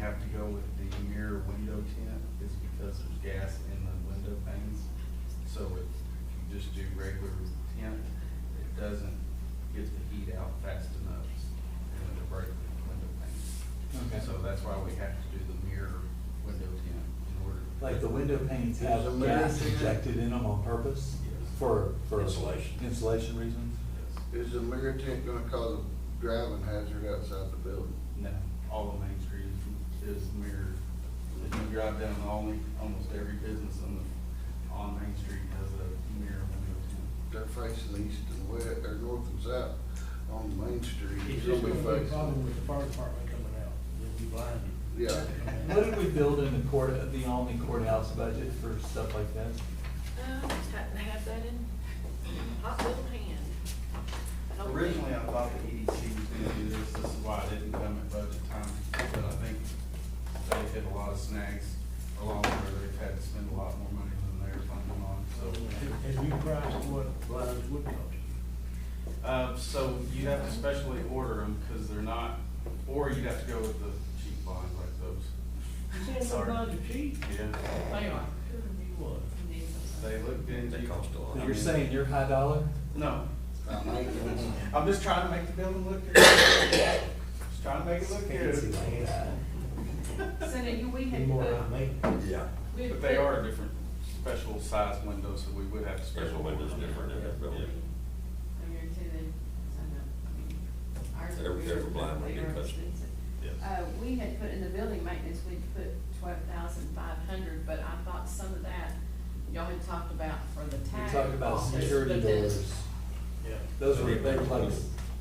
have to go with the mirror window tint is because there's gas in the window panes. So if if you just do regular tint, it doesn't get the heat out fast enough and it'll break the window Okay. panes. So that's why we have to do the mirror window tint in order. to- Like the window panes There's have a gas mirror. injected in them on purpose Yes. for, for. Insulation. Insulation reasons? Yes. Is the mirror tent gonna cause a driving hazard outside the building? No, all of Main Street is is mirrored. If you drive down, only, almost every business on the, on Main Street has a mirror window They're facing east and west, or north and south on Main Street. It's They'll just be gonna be a problem facing. with the fire department coming out, they'll be blinded. Yeah. What did we build in the court, the Almy courthouse budget for stuff like that? Um, just happen to have that in hot little hand. I don't tint. think- Originally, I thought the EDC was gonna do this, this is why I didn't come at budget time, but I think they hit a lot of snags along the way, they've had to spend a lot more money than they were planning on, so. Have have you priced what blinds would cost? Uh, so you'd have to specially order them, cause they're not, or you'd have to go with the cheap blinds like those. Saying Sorry. the blinds are cheap, Yeah. they are, you what? They looked into. They cost a lot. You're saying you're high dollar? No, I mean, I'm just trying to make the building look good. Just trying to make it look Fancy good. like that. So that you, we had put, Yeah, we had But they put- are a different, special size windows, so we would have special special orders. windows different in that building. I guarantee they- I know, I mean, ours are They're- they're weird, blind they when they are touch it. expensive. Uh, we had put in the building maintenance, we'd put twelve thousand five hundred, but I thought some of that, y'all had talked about for the We tag. talked about office, security but then- doors. Yeah. Those were, they were like,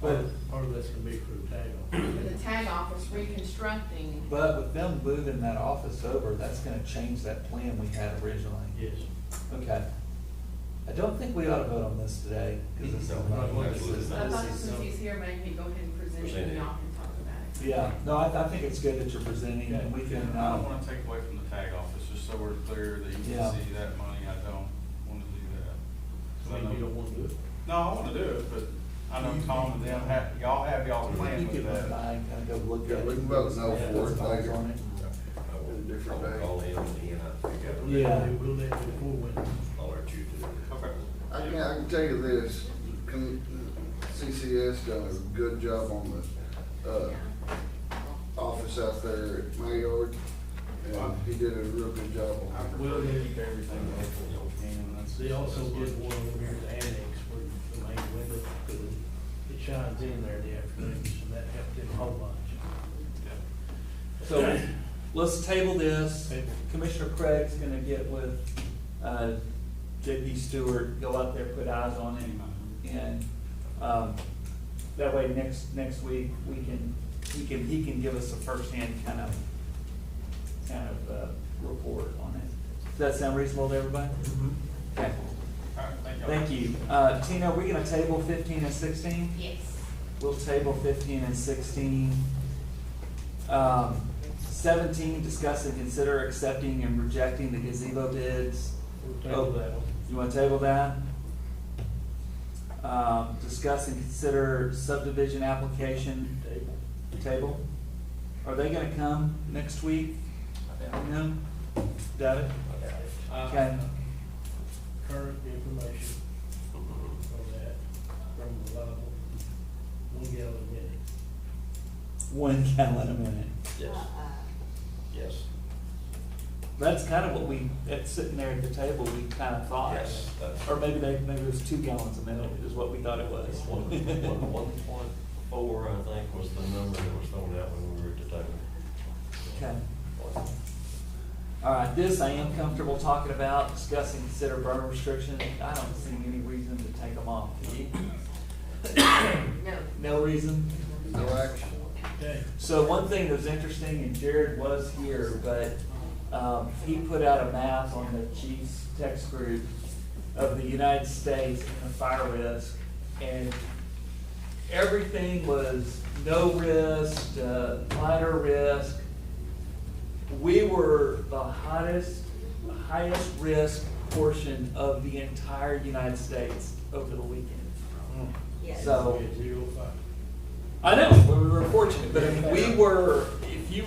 but, Or, or that's gonna be crew tag For on. the tag office reconstructing, but with them moving that office over, that's gonna change that plan we had originally. Yes. Okay. I don't think we ought to vote on this today, because it's No, not. absolutely so I thought since he's here, maybe he'd go ahead and present it Present it. and y'all can talk about it. Yeah, no, I, I think it's good that you're presenting, and we can, I don't uh, wanna take away from the tag office, just so we're clear that you Yeah. can see that money, I don't wanna do that. 'Cause I Maybe you know- don't wanna do it. No, I wanna do it, but I know Tom and them have, y'all have y'all's you plan can with run that. by and kind of go look at Yeah, it. we can vote no Yeah, for it that's fine later. on it. I will, Different I'll day. call him and he and I figure out. Yeah. We'll let it before winter. I'll let you do it. Okay. I can, I can tell you this, con- CCS done a good job on the, uh, office out there at my yard. And he did a real good job I on prefer to keep everything local, and that's. They also that's what- did one over here at the annex where the main window, it shines in there in the afternoons, and that helped them a whole lot. Yeah. So, let's table this. Table. Commissioner Craig's gonna get with, uh, JP Stewart, go out there, put eyes on him. And, um, that way next, next week, we can, he can, he can give us a firsthand kind of, kind of, uh, report on it. Does that sound reasonable to everybody? Okay, All right, thank y'all. thank you. Uh, Tina, are we gonna table fifteen and sixteen? Yes. We'll table fifteen and sixteen. Um, seventeen, discuss and consider accepting and rejecting the gazebo bids. We'll table that one. You wanna table that? Um, discuss and consider subdivision application Table. table. Are they gonna come next week? No? Doubt it? Uh, Okay. Current information on that from reliable, one gallon a minute. One gallon a minute. Yes, yes, That's kind of what we, that's sitting there at the table, we kind of thought. yes, that's. Or maybe they, maybe it was two gallons a minute is what we thought it was. One, one, one point four, I think, was the number that was thrown out when we were at the table. Okay. All right, this I am comfortable talking about, discussing consider burn restriction. I don't see any reason to take them off. Do you? No. No reason? it. No action. Okay. So one thing that was interesting, and Jared was here, but, um, he put out a map on the chief's text group of the United States and the fire risk, and everything was no risk, uh, minor risk. We were the hottest, highest risk portion of the entire United States over the weekend. So, Zero five. I know, we were fortunate, but I mean, we were, if you